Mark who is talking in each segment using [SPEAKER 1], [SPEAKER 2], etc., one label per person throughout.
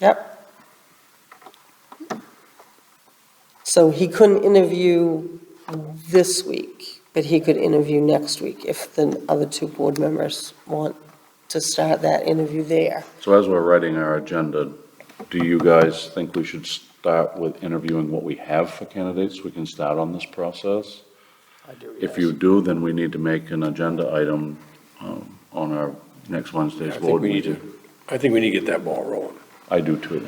[SPEAKER 1] Yep. So he couldn't interview this week, but he could interview next week if the other two board members want to start that interview there.
[SPEAKER 2] So as we're writing our agenda, do you guys think we should start with interviewing what we have for candidates? We can start on this process?
[SPEAKER 3] I do,
[SPEAKER 2] If you do, then we need to make an agenda item um, on our next Wednesday's
[SPEAKER 3] I think
[SPEAKER 2] board
[SPEAKER 3] we need to-
[SPEAKER 2] meeting.
[SPEAKER 3] I think we need to get that ball rolling
[SPEAKER 2] I do too.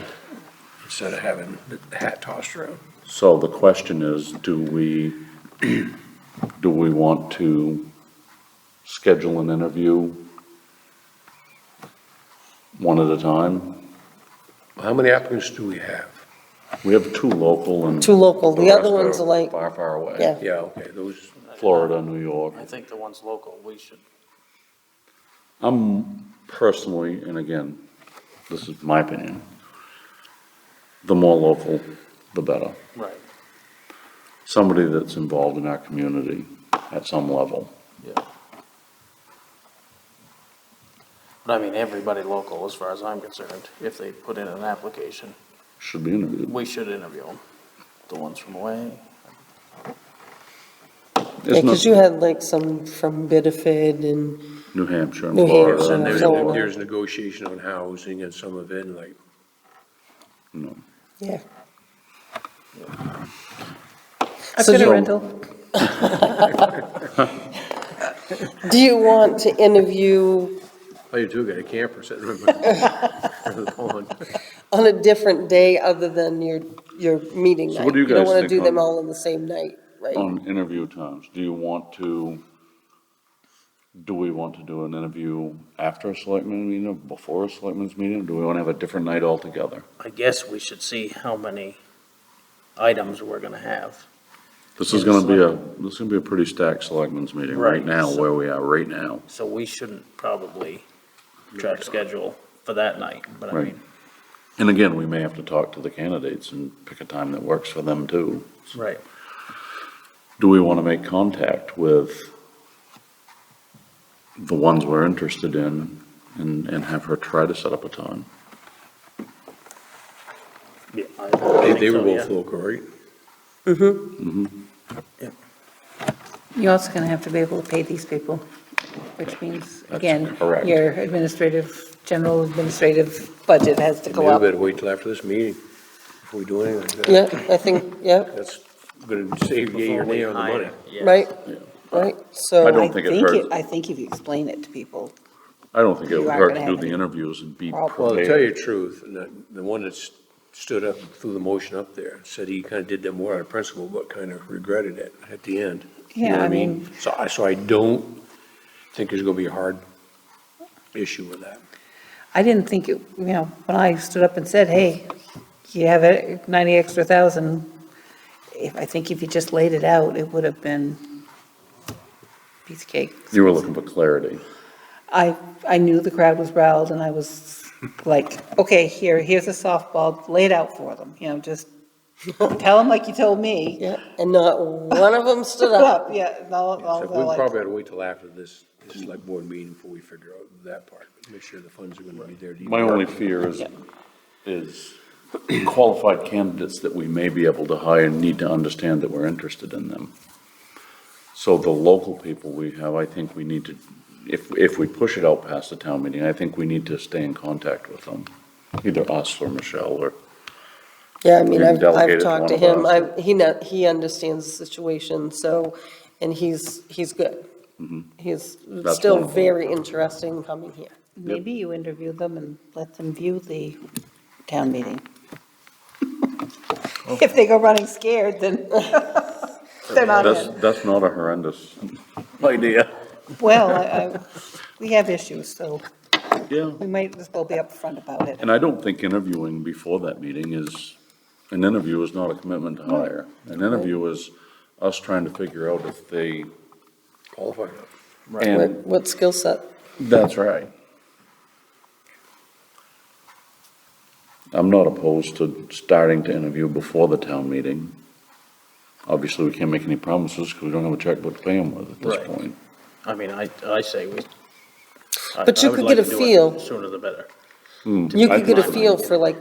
[SPEAKER 3] instead of having the hat tossed around.
[SPEAKER 2] So the question is, do we, do we want to schedule an interview one at a time?
[SPEAKER 3] How many applicants do we have?
[SPEAKER 2] We have two local and.
[SPEAKER 1] Two local, the other ones
[SPEAKER 2] rest are
[SPEAKER 1] are like,
[SPEAKER 2] Far, far away.
[SPEAKER 1] yeah,
[SPEAKER 3] Yeah, okay, those,
[SPEAKER 2] Florida, New York.
[SPEAKER 4] I think the ones local, we should,
[SPEAKER 2] I'm personally, and again, this is my opinion, the more local, the better.
[SPEAKER 4] right,
[SPEAKER 2] Somebody that's involved in our community at some level.
[SPEAKER 4] yeah. But I mean, everybody local, as far as I'm concerned, if they put in an application,
[SPEAKER 2] Should be interviewed.
[SPEAKER 4] we should interview them. The ones from away,
[SPEAKER 2] It's
[SPEAKER 1] because
[SPEAKER 2] not
[SPEAKER 1] you had like some from Biddeford and,
[SPEAKER 2] New Hampshire and
[SPEAKER 1] New
[SPEAKER 2] Florida.
[SPEAKER 1] Hampshire
[SPEAKER 3] and
[SPEAKER 1] and
[SPEAKER 3] there's,
[SPEAKER 1] so on.
[SPEAKER 3] there's negotiation on housing and some of it, and like,
[SPEAKER 2] No.
[SPEAKER 1] yeah.
[SPEAKER 5] I've
[SPEAKER 1] So
[SPEAKER 5] got a
[SPEAKER 1] you-
[SPEAKER 5] rental.
[SPEAKER 1] Do you want to interview
[SPEAKER 3] oh, you do got a camper sitting in my- in the pond.
[SPEAKER 1] on a different day other than your, your meeting night?
[SPEAKER 2] So what do you
[SPEAKER 1] don't
[SPEAKER 2] guys
[SPEAKER 1] want to
[SPEAKER 2] think
[SPEAKER 1] do them
[SPEAKER 2] on-
[SPEAKER 1] all on the same night, right?
[SPEAKER 2] On interview times, do you want to, do we want to do an interview after a selectman meeting, or before a selectman's meeting? Do we want to have a different night altogether?
[SPEAKER 4] I guess we should see how many items we're gonna have.
[SPEAKER 2] This is gonna be a, this is gonna be a pretty stacked selectmen's meeting right
[SPEAKER 4] Right,
[SPEAKER 2] now,
[SPEAKER 4] so-
[SPEAKER 2] where we are right now.
[SPEAKER 4] So we shouldn't probably try to schedule for that night, but I
[SPEAKER 2] Right.
[SPEAKER 4] mean,
[SPEAKER 2] And again, we may have to talk to the candidates and pick a time that works for them too.
[SPEAKER 4] right,
[SPEAKER 2] Do we want to make contact with the ones we're interested in and, and have her try to set up a time?
[SPEAKER 4] yeah. I
[SPEAKER 3] They,
[SPEAKER 4] think
[SPEAKER 3] they were
[SPEAKER 4] so,
[SPEAKER 3] both
[SPEAKER 4] yeah.
[SPEAKER 3] local, right?
[SPEAKER 5] You're also going to have to be able to pay these people, which means,
[SPEAKER 2] That's
[SPEAKER 5] again,
[SPEAKER 2] correct.
[SPEAKER 5] your administrative, general administrative budget has to
[SPEAKER 3] Maybe
[SPEAKER 5] go
[SPEAKER 3] we
[SPEAKER 5] up.
[SPEAKER 3] better wait till after this meeting before we do anything like that.
[SPEAKER 1] Yeah, I think, yeah,
[SPEAKER 3] That's gonna save yay or nay on the money.
[SPEAKER 4] Yeah.
[SPEAKER 1] right, right, so.
[SPEAKER 2] I don't think it hurts.
[SPEAKER 5] I think if you explain it to people,
[SPEAKER 2] I don't think it
[SPEAKER 5] You
[SPEAKER 2] would
[SPEAKER 5] are
[SPEAKER 2] hurt to
[SPEAKER 5] gonna
[SPEAKER 2] do
[SPEAKER 5] have
[SPEAKER 2] the
[SPEAKER 5] it.
[SPEAKER 2] interviews and be
[SPEAKER 5] Well,
[SPEAKER 3] Well, to tell
[SPEAKER 2] prepared.
[SPEAKER 3] you the truth, the, the one that s- stood up, and threw the motion up there, said he kind of did that more out of principle, but kind of regretted it at the end. You know
[SPEAKER 5] Yeah,
[SPEAKER 3] what
[SPEAKER 5] I mean-
[SPEAKER 3] So I, so I don't think there's gonna be a hard issue with that.
[SPEAKER 5] I didn't think, it. you know, when I stood up and said, hey, you have a 90 extra thousand, if, I think if you just laid it out, it would have been piece of cake.
[SPEAKER 2] You were looking for clarity.
[SPEAKER 5] I, I knew the crowd was riled, and I was like, okay, here, here's a softball, lay it out for them, you know, just tell them like you told me.
[SPEAKER 1] Yeah, and not one of them stood up.
[SPEAKER 5] Up, yeah, and all, all
[SPEAKER 3] So
[SPEAKER 5] the
[SPEAKER 3] we
[SPEAKER 5] like,
[SPEAKER 3] probably had to wait till after this, this select board meeting before we figure out that part, make sure the funds are gonna be there. to
[SPEAKER 2] My
[SPEAKER 3] even-
[SPEAKER 2] only fear is, is qualified candidates that we may be able to hire need to understand that we're interested in them. So the local people we have, I think we need to, if, if we push it out past the town meeting, I think we need to stay in contact with them, either us or Michelle or,
[SPEAKER 1] Yeah, I mean,
[SPEAKER 2] You
[SPEAKER 1] I've,
[SPEAKER 2] delegated
[SPEAKER 1] I've
[SPEAKER 2] to
[SPEAKER 1] talked to
[SPEAKER 2] one of
[SPEAKER 1] him,
[SPEAKER 2] us.
[SPEAKER 1] I, he know, he understands the situation, so, and he's, he's good. He's
[SPEAKER 2] Mm-hmm. That's
[SPEAKER 1] still
[SPEAKER 2] wonderful.
[SPEAKER 1] very interested in coming here.
[SPEAKER 5] maybe you interview them and let them view the town meeting.
[SPEAKER 2] Oh.
[SPEAKER 5] If they go running scared, then they're not
[SPEAKER 2] that's,
[SPEAKER 5] in.
[SPEAKER 2] that's not a horrendous idea.
[SPEAKER 5] Well, I, I, we have issues, so
[SPEAKER 2] Yeah.
[SPEAKER 5] we might as well be upfront about it.
[SPEAKER 2] And I don't think interviewing before that meeting is, an interview is not a commitment to hire. An interview is us trying to figure out if they,
[SPEAKER 3] Qualified.
[SPEAKER 1] What,
[SPEAKER 2] and
[SPEAKER 1] what skill set?
[SPEAKER 2] That's right. I'm not opposed to starting to interview before the town meeting. Obviously, we can't make any promises because we don't have a checkbook to pay them with at this
[SPEAKER 4] Right.
[SPEAKER 2] point.
[SPEAKER 4] I mean, I, I say we. I-
[SPEAKER 1] But you
[SPEAKER 4] I would
[SPEAKER 1] could
[SPEAKER 4] like
[SPEAKER 1] get a
[SPEAKER 4] to do it
[SPEAKER 1] feel.
[SPEAKER 4] Sooner the better.
[SPEAKER 1] You could get a
[SPEAKER 2] Pipeline.
[SPEAKER 1] feel for like